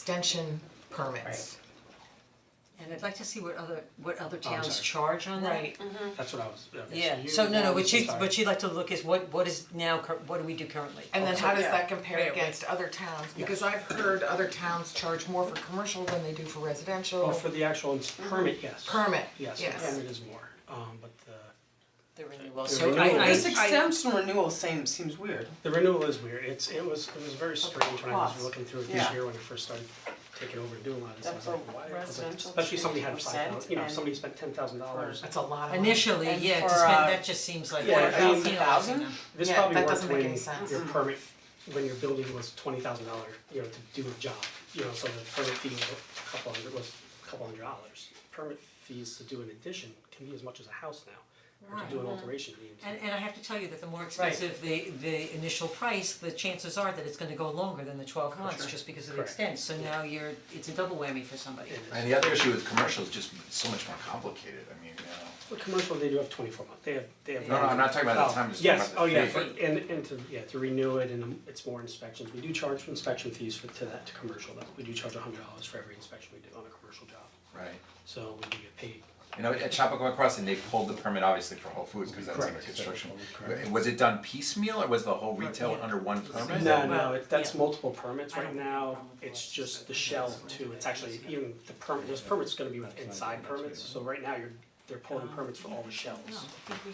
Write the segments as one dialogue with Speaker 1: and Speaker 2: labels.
Speaker 1: extension permits.
Speaker 2: And I'd like to see what other, what other
Speaker 3: Oh, I'm
Speaker 2: towns
Speaker 3: sorry.
Speaker 2: charge on that.
Speaker 1: Right,
Speaker 3: That's what I was, yeah.
Speaker 2: Yeah, so no, no, what she's,
Speaker 3: sorry.
Speaker 2: what she'd like to look is what, what is now, cur- what do we do currently?
Speaker 1: and then how does
Speaker 4: yeah.
Speaker 1: that compare
Speaker 4: Yeah,
Speaker 1: against other towns? Because I've heard other towns charge more for commercial than they do for residential.
Speaker 3: Well, Oh, for the actual ins- permit, yes.
Speaker 1: Permit,
Speaker 3: Yes, the
Speaker 1: yes.
Speaker 3: permit is more, um, but the,
Speaker 2: The renewal,
Speaker 3: The
Speaker 2: so I,
Speaker 3: renewal.
Speaker 2: I,
Speaker 4: This
Speaker 2: I-
Speaker 4: exemption renewal same, seems weird.
Speaker 3: the renewal is weird, it's, it was, it was very strange when I was
Speaker 4: Cost.
Speaker 3: looking through it this
Speaker 4: Yeah.
Speaker 3: year when I first started taking over and doing a lot of this, I was
Speaker 4: That's
Speaker 3: like,
Speaker 4: a
Speaker 3: why? I was like,
Speaker 4: residential
Speaker 3: Especially somebody had
Speaker 4: 20%
Speaker 3: five thousand, you know,
Speaker 4: and-
Speaker 3: somebody spent ten thousand dollars,
Speaker 1: That's a lot of money.
Speaker 2: initially,
Speaker 4: And
Speaker 2: yeah, to
Speaker 4: for,
Speaker 2: spend,
Speaker 4: uh,
Speaker 2: that just seems like,
Speaker 3: Yeah, I mean-
Speaker 2: you know, I don't know.
Speaker 3: this
Speaker 1: Yeah,
Speaker 3: probably
Speaker 1: that
Speaker 3: worked
Speaker 1: doesn't make
Speaker 3: when
Speaker 1: any sense.
Speaker 3: your permit, when your building was twenty thousand dollar, you know, to do a job, you know, so the permit fee was a couple hundred, was a couple hundred dollars. Permit fees to do an addition can be as much as a house now, or to do an alteration, you know.
Speaker 2: And and I have to tell you that the more expensive the the initial price, the chances are that it's gonna go longer than the twelve months, just because of the
Speaker 3: Correct.
Speaker 2: extent, so now you're, it's a double whammy for somebody.
Speaker 5: And the other issue with commercial is just it's so much more complicated, I mean, you
Speaker 3: Well, commercial, they do have twenty-four month, they have, they have.
Speaker 5: know. No, no, I'm not talking about the time, I'm just talking
Speaker 3: Yes,
Speaker 5: about
Speaker 3: oh
Speaker 5: the
Speaker 3: yeah,
Speaker 5: fee.
Speaker 3: for, and and to, yeah, to renew it and um, it's more inspections, we do charge for inspection fees for, to that, to commercial though, we do charge a hundred dollars for every inspection we do on a commercial job.
Speaker 5: Right,
Speaker 3: So we do get paid,
Speaker 5: you know, at Chappaqua Crossing, they pulled the permit obviously for Whole Foods, cause that's under
Speaker 3: Correct.
Speaker 5: construction. W- Was it done piecemeal, or was the whole retail under one permit?
Speaker 3: no,
Speaker 2: Well,
Speaker 3: no, it- that's
Speaker 2: yeah.
Speaker 3: multiple permits
Speaker 2: I
Speaker 3: right
Speaker 2: don't have a
Speaker 3: now,
Speaker 2: problem with the
Speaker 3: it's
Speaker 2: license,
Speaker 3: just
Speaker 2: but
Speaker 3: the
Speaker 2: it's
Speaker 3: shell
Speaker 2: also
Speaker 3: too,
Speaker 2: the
Speaker 3: it's actually,
Speaker 2: license.
Speaker 3: even the permit, those permits gonna be with inside permits, so right now you're, they're pulling
Speaker 2: Oh.
Speaker 3: permits for all the shells.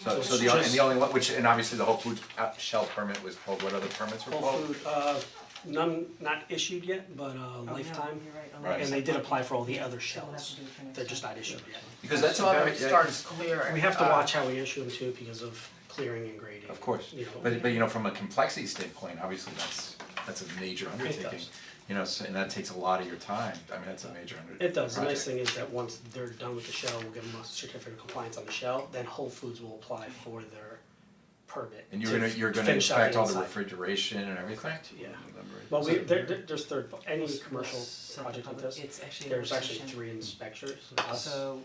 Speaker 5: So, so the only, and the only one, which, and obviously the Whole Foods out- shell permit was pulled, what other permits
Speaker 2: Oh.
Speaker 5: were pulled?
Speaker 3: Whole Food, uh, none, not issued yet, but uh,
Speaker 2: Oh, no,
Speaker 3: lifetime,
Speaker 2: you're right,
Speaker 5: Right.
Speaker 3: and
Speaker 2: unless-
Speaker 3: they did apply for all the other
Speaker 2: So we'll have
Speaker 3: shells,
Speaker 2: to do it for next
Speaker 3: they're just
Speaker 2: time.
Speaker 3: not issued yet.
Speaker 5: Because that's a lot of, yeah,
Speaker 4: starts clear.
Speaker 3: We have to watch how we issue them too because of clearing and grading.
Speaker 5: Uh, Of course,
Speaker 3: You know,
Speaker 5: but but you know, from a complexity standpoint, obviously that's that's a major undertaking,
Speaker 3: does.
Speaker 5: you know, so and that takes a lot of your time, I mean, that's a major under-
Speaker 3: it does, the nice
Speaker 5: project.
Speaker 3: thing is that once they're done with the shell, we'll give them a certificate of compliance on the shell, then Whole Foods will apply for their permit
Speaker 5: And
Speaker 3: to
Speaker 5: you're gonna, you're gonna
Speaker 3: finish out
Speaker 5: inspect all the
Speaker 3: inside.
Speaker 5: refrigeration and everything?
Speaker 3: Yeah,
Speaker 5: Remember it.
Speaker 3: well, we,
Speaker 5: So-
Speaker 3: there, there- there's third, any
Speaker 2: Let's-
Speaker 3: commercial
Speaker 2: let's set the
Speaker 3: project like
Speaker 2: public-
Speaker 3: this,
Speaker 2: it's actually a
Speaker 3: there's
Speaker 2: work
Speaker 3: actually
Speaker 2: session.
Speaker 3: three inspectors, us,
Speaker 2: So,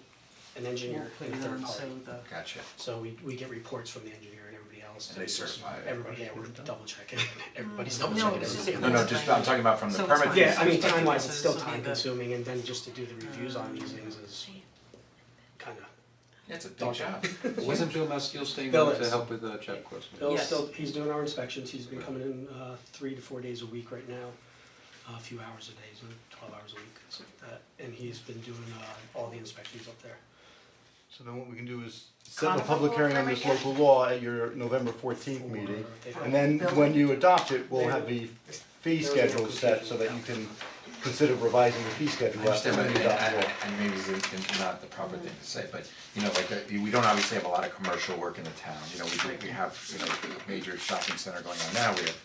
Speaker 3: an
Speaker 2: we'll
Speaker 3: engineer,
Speaker 2: put
Speaker 3: and a
Speaker 2: it
Speaker 3: third
Speaker 2: on,
Speaker 3: party.
Speaker 2: so the,
Speaker 5: Gotcha,
Speaker 3: So we, we get reports from the engineer and everybody else.
Speaker 5: And they certify it.
Speaker 3: Everybody, yeah, we're double checking, everybody's double
Speaker 2: No,
Speaker 3: checking
Speaker 2: it's just
Speaker 3: everything.
Speaker 2: a-
Speaker 5: no, no, just, I'm talking about from the
Speaker 2: So it's
Speaker 5: permit.
Speaker 2: fine.
Speaker 3: Yeah, I mean,
Speaker 2: Perspective,
Speaker 3: time wise,
Speaker 2: so
Speaker 3: it's still
Speaker 2: this will be
Speaker 3: time
Speaker 2: the-
Speaker 3: consuming, and then just to do the reviews on these things is kinda,
Speaker 5: It's a big job.
Speaker 6: Wasn't Bill Maskeel staying
Speaker 3: Bill
Speaker 6: on to
Speaker 3: is.
Speaker 6: help with the chap course?
Speaker 3: Bill's
Speaker 2: Yes.
Speaker 3: still, he's doing our inspections, he's been coming in, uh, three to four days a week right now. A few hours a day, so twelve hours a week, something like that, and he's been doing, uh, all the inspections up there.
Speaker 7: So then what we can do is set a
Speaker 1: Common
Speaker 7: public
Speaker 1: law
Speaker 7: hearing on this
Speaker 1: permit,
Speaker 7: local law at your November fourteenth meeting.
Speaker 3: They-
Speaker 7: And then when you adopt it, we'll have the fee
Speaker 3: There's a
Speaker 7: schedule set so
Speaker 3: confusion.
Speaker 7: that you can consider revising the fee
Speaker 5: I
Speaker 7: schedule after
Speaker 5: understand,
Speaker 7: you
Speaker 5: but
Speaker 7: adopt
Speaker 5: I
Speaker 7: the
Speaker 5: mean,
Speaker 7: law.
Speaker 5: I- I- and maybe it's it's not the proper thing to say, but, you know, like, that- we don't obviously have a lot of commercial work in the town, you know, we do, we have, you know, a major shopping center going on now, we have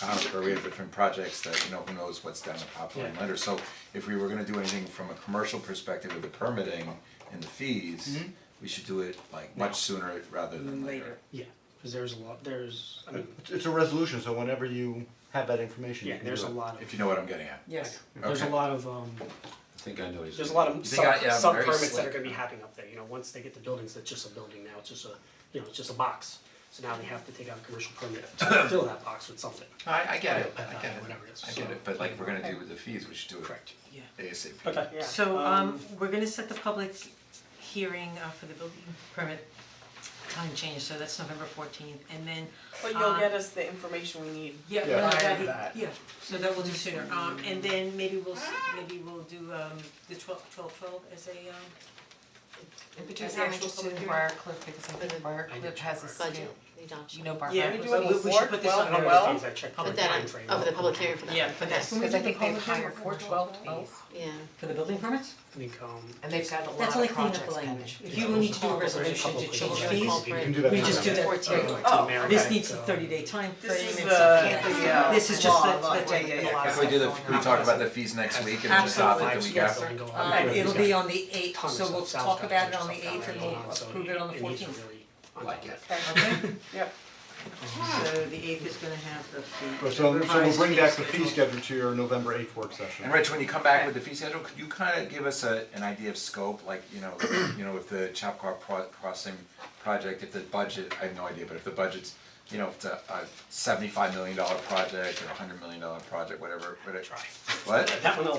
Speaker 5: Conifer, we have different projects that, you know, who knows what's down the pipeline
Speaker 3: Yeah.
Speaker 5: later, so if we were gonna do anything from a commercial perspective with the permitting and the fees,
Speaker 3: Mm-hmm.
Speaker 5: we should do it like much sooner rather than later.
Speaker 2: Later.
Speaker 3: Yeah, cause there's a lot, there's, I mean,
Speaker 7: It's- It's a resolution, so whenever you have that information, you
Speaker 3: yeah,
Speaker 7: can do
Speaker 3: there's a
Speaker 7: it.
Speaker 3: lot
Speaker 5: If
Speaker 3: of,
Speaker 5: you know what I'm getting at.
Speaker 2: yes.
Speaker 3: there's a
Speaker 5: Okay.
Speaker 3: lot of, um,
Speaker 6: I think I know he's.
Speaker 3: there's a lot of
Speaker 5: think I- yeah,
Speaker 3: sub,
Speaker 5: I'm
Speaker 3: sub
Speaker 5: very
Speaker 3: permits that
Speaker 5: slick.
Speaker 3: are gonna be happening up there, you know, once they get the buildings, it's just a building now, it's just a, you know, it's just a box. So now they have to take out a commercial permit to fill that box with something.
Speaker 5: I I get it,
Speaker 3: Right,
Speaker 5: I
Speaker 3: uh,
Speaker 5: get it,
Speaker 3: whatever it is,
Speaker 5: I get
Speaker 3: so-
Speaker 5: it, but like, if we're gonna do with the fees, we should do it
Speaker 3: Correct.
Speaker 2: Yeah.
Speaker 5: ASAP.
Speaker 3: Okay, yeah.
Speaker 2: So, um, we're gonna set the public hearing uh, for the building permit time change, so that's November fourteenth, and then,
Speaker 4: But you'll get us the information we need.
Speaker 2: yeah,
Speaker 7: Yeah.
Speaker 2: well,
Speaker 4: Prior
Speaker 2: that,
Speaker 4: to that.
Speaker 2: yeah, so that we'll do sooner, um, and then maybe we'll, s- maybe we'll do, um, the twelve, twelve, twelve as a, um,
Speaker 1: In
Speaker 2: As
Speaker 1: particular,
Speaker 2: the
Speaker 1: I'm
Speaker 2: actual
Speaker 1: interested in
Speaker 2: public
Speaker 1: Briar Cliff because I think Briar
Speaker 3: I
Speaker 1: Cliff
Speaker 3: did
Speaker 1: has a
Speaker 3: Briar
Speaker 1: schedule. You know Briar
Speaker 2: yeah,
Speaker 1: Cliff.
Speaker 4: we do it
Speaker 2: so we, we should
Speaker 4: before
Speaker 2: put this
Speaker 4: 12,
Speaker 2: on
Speaker 3: One of
Speaker 2: there.
Speaker 3: the
Speaker 4: well,
Speaker 3: things I checked
Speaker 2: Put
Speaker 3: the
Speaker 8: that
Speaker 3: timeframe
Speaker 8: on, of the public hearing for that.
Speaker 2: Yeah, for that,
Speaker 1: Because I think they've hired
Speaker 2: before
Speaker 1: four
Speaker 2: 12,
Speaker 1: twelve,
Speaker 8: Yeah.
Speaker 2: for the building permits?
Speaker 3: I think, um,
Speaker 1: and they've got a lot
Speaker 2: That's
Speaker 1: of
Speaker 2: only cleaning up the
Speaker 1: projects
Speaker 2: language,
Speaker 1: pending.
Speaker 2: if you will need to do a resolution
Speaker 3: couple
Speaker 2: to
Speaker 3: of
Speaker 2: change
Speaker 3: places.
Speaker 2: fees,
Speaker 7: You can do
Speaker 2: we just do
Speaker 7: that.
Speaker 2: that.
Speaker 3: I went to
Speaker 4: Oh,
Speaker 3: Merrimack,
Speaker 2: This needs a
Speaker 3: so-
Speaker 2: thirty day time
Speaker 4: This
Speaker 2: frame,
Speaker 4: is the,
Speaker 2: it's,
Speaker 4: the,
Speaker 2: yeah,
Speaker 4: uh,
Speaker 2: this is just
Speaker 4: law,
Speaker 2: that,
Speaker 4: law.
Speaker 2: that day, yeah,
Speaker 1: Yeah,
Speaker 2: yeah.
Speaker 1: yeah.
Speaker 5: Can we do the, can we talk about the fees next week and then just stop it the
Speaker 2: Absolutely,
Speaker 5: week
Speaker 2: yes,
Speaker 5: after?
Speaker 2: sir.
Speaker 3: Go on.
Speaker 2: Uh, it'll be on the eighth,
Speaker 3: Tons
Speaker 2: so
Speaker 3: of
Speaker 2: we'll
Speaker 3: sales
Speaker 2: talk
Speaker 3: guys
Speaker 2: about it
Speaker 3: and
Speaker 2: on the
Speaker 3: stuff down
Speaker 2: eighth
Speaker 3: there
Speaker 2: and
Speaker 3: going
Speaker 2: we'll
Speaker 3: on, so
Speaker 2: approve it on the
Speaker 3: it needs to
Speaker 2: fourteenth,
Speaker 3: really-
Speaker 5: Like it.
Speaker 2: okay?
Speaker 4: Yep.
Speaker 2: So the eighth is gonna have the fee.
Speaker 7: But so so we'll bring back the fee schedule to your November eighth work session.
Speaker 5: And Rich, when you come back with the fee schedule, could you kind of give us a, an idea of scope, like, you know, you know, if the Chapua Pro- Crossing project, if the budget, I have no idea, but if the budget's, you know, if it's a, a seventy-five million dollar project or a hundred million dollar project, whatever, whatever. What?
Speaker 3: That one, I'll